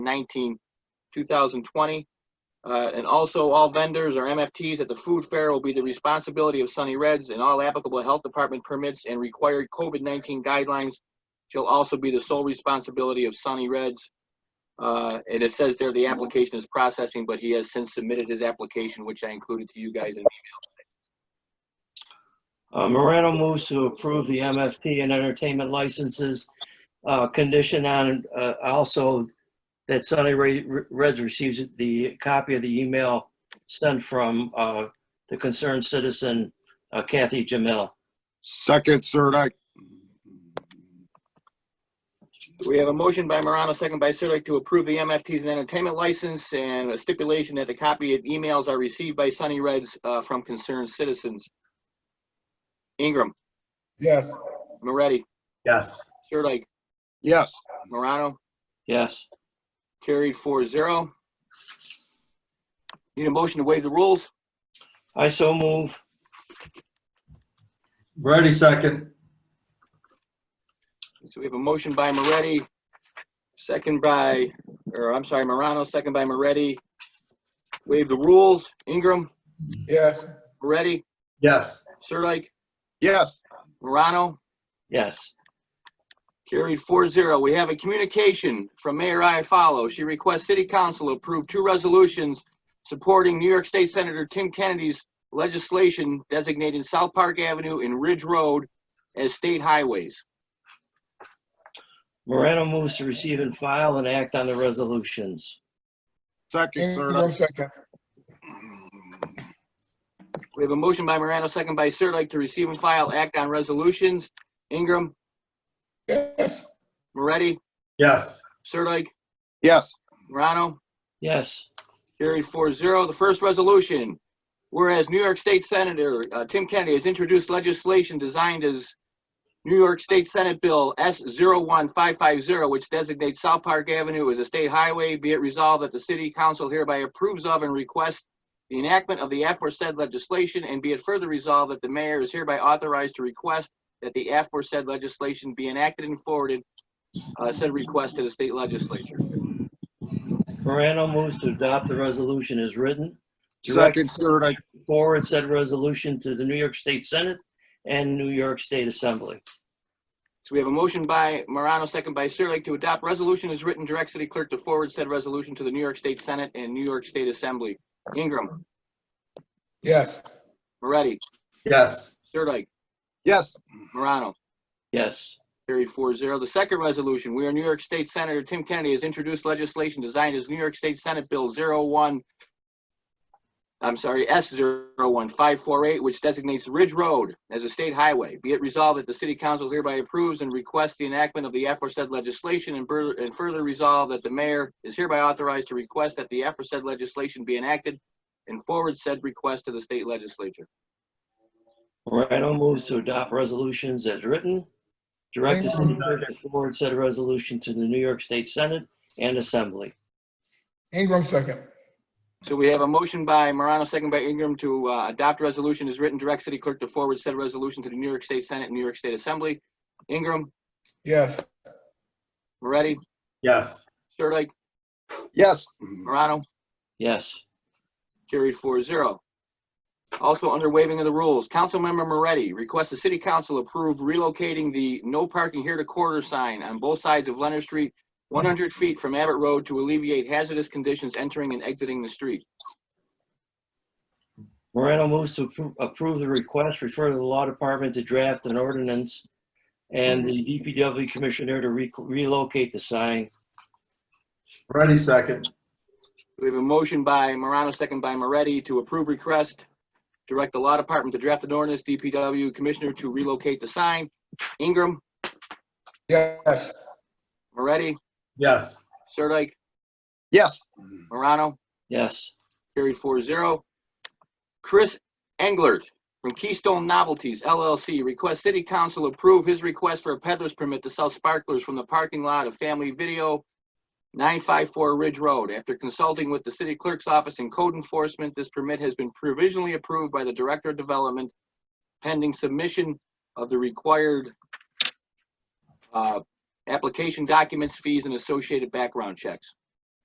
19, 2020. Uh, And also, all vendors or MFTs at the food fair will be the responsibility of Sunny Reds, and all applicable health department permits and required COVID-19 guidelines shall also be the sole responsibility of Sunny Reds. Uh, And it says there the application is processing, but he has since submitted his application, which I included to you guys in Uh, Morano moves to approve the MFT and entertainment licenses, uh, condition on, uh, also that Sunny Re- Re- Reds receives the copy of the email sent from, uh, the concerned citizen uh, Kathy Jamil. Second, Sirdike. We have a motion by Morano, second by Sirdike, to approve the MFTs and entertainment license and a stipulation that the copy of emails are received by Sunny Reds uh, from concerned citizens. Ingram, Yes. Moretti, Yes. Sirdike, Yes, Morano, Yes. carried 4-0. Need a motion to waive the rules? I so move. Moretti second. So we have a motion by Moretti, second by, or I'm sorry, Morano, second by Moretti. Waive the rules. Ingram, Yes. Moretti, Yes. Sirdike, yes, Morano, Yes. Carried 4-0. We have a communication from Mayor Iafallo. She requests City Council approve two resolutions supporting New York State Senator Tim Kennedy's legislation designating South Park Avenue and Ridge Road as state highways. Morano moves to receive and file and act on the resolutions. second, Sirdike. second. We have a motion by Morano, second by Sirdike, to receive and file act on resolutions. Ingram, Yes. Moretti, Yes. Sirdike, Yes, Morano. Yes. Carried 4-0. The first resolution, whereas New York State Senator uh, Tim Kennedy has introduced legislation designed as New York State Senate Bill S-01550, which designates South Park Avenue as a state highway, be it resolved that the city council hereby approves of and requests the enactment of the aforesaid legislation, and be it further resolved that the mayor is hereby authorized to request that the aforesaid legislation be enacted and forwarded uh, said request to the state legislature. Morano moves to adopt the resolution as written. second, Sirdike. forward said resolution to the New York State Senate and New York State Assembly. So we have a motion by Morano, second by Sirlik, to adopt resolution as written, direct city clerk to forward said resolution to the New York State Senate and New York State Assembly. Ingram, Yes. Moretti, Yes. Sirlik, Yes, Morano. Yes. Carried 4-0. The second resolution, where New York State Senator Tim Kennedy has introduced legislation designed as New York State Senate Bill 01, I'm sorry, S01548, which designates Ridge Road as a state highway. Be it resolved that the city council hereby approves and requests the enactment of the aforesaid legislation and fur- and further resolved that the mayor is hereby authorized to request that the aforesaid legislation be enacted and forward said request to the state legislature. Morano moves to adopt resolutions as written. Direct the city clerk to forward said resolution to the New York State Senate and Assembly. Ingram second. So we have a motion by Morano, second by Ingram, to uh, adopt resolution as written, direct city clerk to forward said resolution to the New York State Senate and New York State Assembly. Ingram, Yes. Moretti, Yes. Sirdike, yes, Morano, Yes. carried 4-0. Also under waiving of the rules, Councilmember Moretti requests the city council approve relocating the no parking here to quarter sign on both sides of Leonard Street, one hundred feet from Abbott Road to alleviate hazardous conditions entering and exiting the street. Morano moves to appro- approve the request, refer to the law department to draft an ordinance and the DPW commissioner to re- relocate the sign. Moretti second. We have a motion by Morano, second by Moretti, to approve request, direct the law department to draft an ordinance, DPW commissioner to relocate the sign. Ingram, Yes. Moretti, Yes. Sirdike, yes, Morano, Yes. carried 4-0. Chris Englert from Keystone Novelties LLC requests city council approve his request for a peddler's permit to sell sparklers from the parking lot of Family Video, 954 Ridge Road. After consulting with the city clerk's office and code enforcement, this permit has been provisionally approved by the Director of Development pending submission of the required uh, application documents, fees, and associated background checks.